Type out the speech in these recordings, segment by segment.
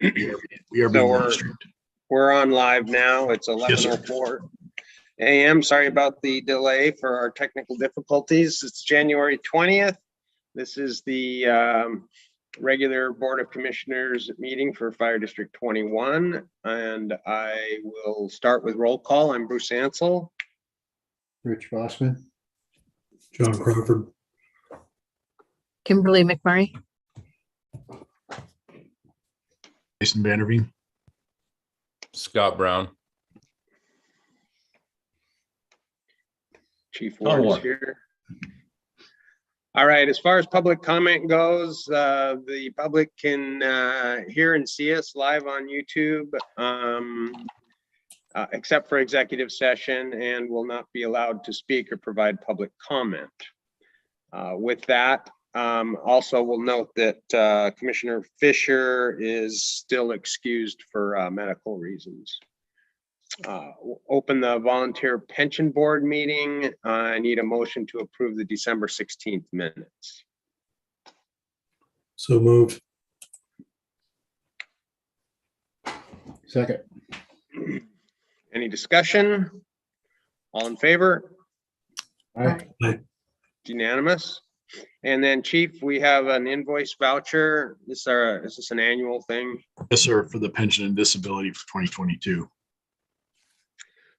We are So being we're- live streamed. We're on live now. It's Yes, eleven sir. oh four AM. Sorry about the delay for our technical difficulties. It's January twentieth. This is the um, regular Board of Commissioners meeting for Fire District twenty-one. And I will start with roll call. I'm Bruce Ansell. Rich Bossman. John Crawford. Kimberly McMurray, Jason Vanderveen. Scott Brown. Chief Ward is here. All right, as far as public comment goes, uh, the public can, uh, hear and see us live on YouTube. Um, uh, except for executive session and will not be allowed to speak or provide public comment. Uh, with that, um, also we will note that, uh, Commissioner Fisher is still excused for, uh, medical reasons uh, o- open the volunteer pension board meeting. Uh, I need a motion to approve the December 16th minutes. So moved. Second. Any discussion? All in favor? Aye. It's Unanimous? And then chief, we have an invoice voucher. This is our, is this an annual thing? Yes, sir, for the pension and disability for 2022.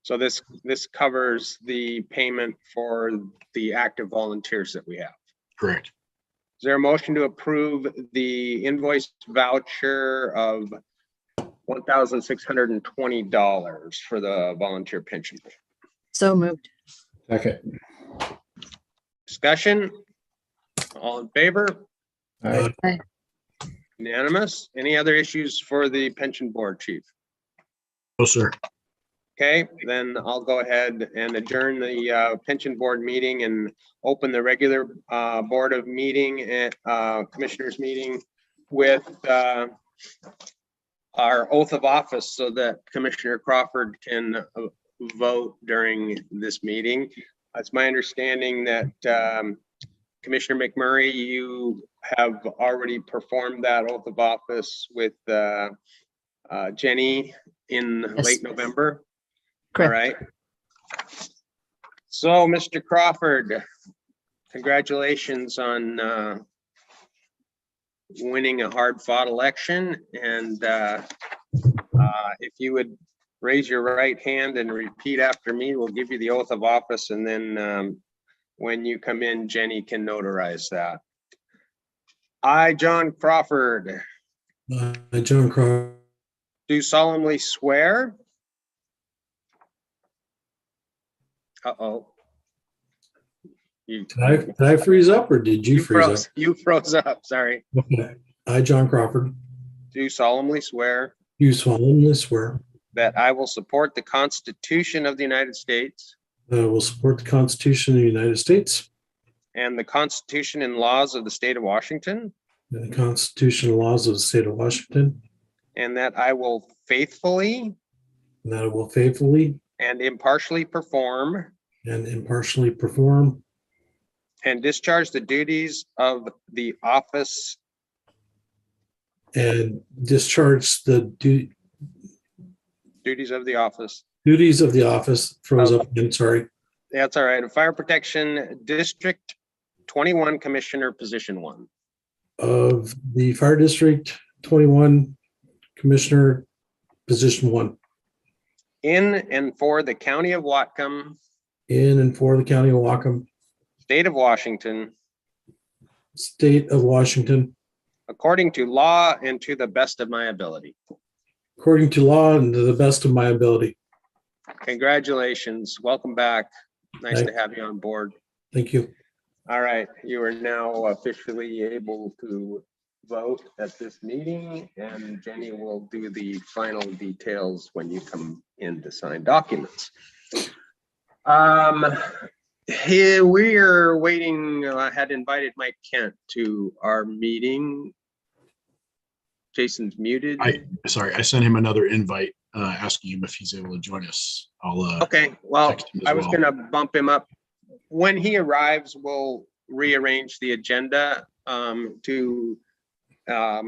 So this, this covers the payment for the active volunteers that we have. Correct. Is there a motion to approve the invoice voucher of one thousand six hundred and twenty dollars for the volunteer pension? so moved. Second. Discussion? All in favor? Uh, Aye. Unanimous? Any other issues for the pension board, chief? No, sir. Okay, then I'll go ahead and adjourn the uh, pension board meeting and open the regular uh, board of meeting and uh, commissioners meeting with uh, our oath of office so that Commissioner Crawford can uh, vote during this meeting. It's my understanding that um, Commissioner McMurray, you have already performed that oath of office with uh, uh, Jenny in Yes. late November. All Correct. right. So, Mr. Crawford, congratulations on uh, winning a hard-fought election. And uh, uh, if you would raise your right hand and repeat after me, we'll give you the oath of office. And then um, when you come in, Jenny can notarize that. I, John Crawford, I, Uh, John Crawford, do solemnly swear. Uh-oh. You did I, did I freeze up or did you you freeze froze, up? you froze up, sorry. Okay. I, John Crawford, Do solemnly swear do solemnly swear that I will support the Constitution of the United States that I will support the Constitution of the United States and the Constitution and laws of the state of Washington, and the Constitution and laws of the state of Washington, and that I will faithfully and that I will faithfully and impartially perform and impartially perform and discharge the duties of the office and discharge the du- duties of the office duties of the office, froze up again, sorry, That's all right. Fire Protection District twenty-one Commissioner Position One. of the Fire District 21 Commissioner, Position 1. In and for the County of Watcom, in and for the county of Wacom, State of Washington, state of Washington, according to law and to the best of my ability. according to law and to the best of my ability. Congratulations. Welcome back. Nice to Thank- have you on board. Thank you. All right, you are now officially able to vote at this meeting, and Jenny will do the final details when you come in to sign documents. Um, here, we're waiting, uh, I had invited Mike Kent to our meeting. Jason's muted. I- Sorry, I sent him another invite, uh, asking him if he's able to join us. I'll, uh, Okay, well, text him as I was well. gonna bump him up. When he arrives, we'll rearrange the agenda um to um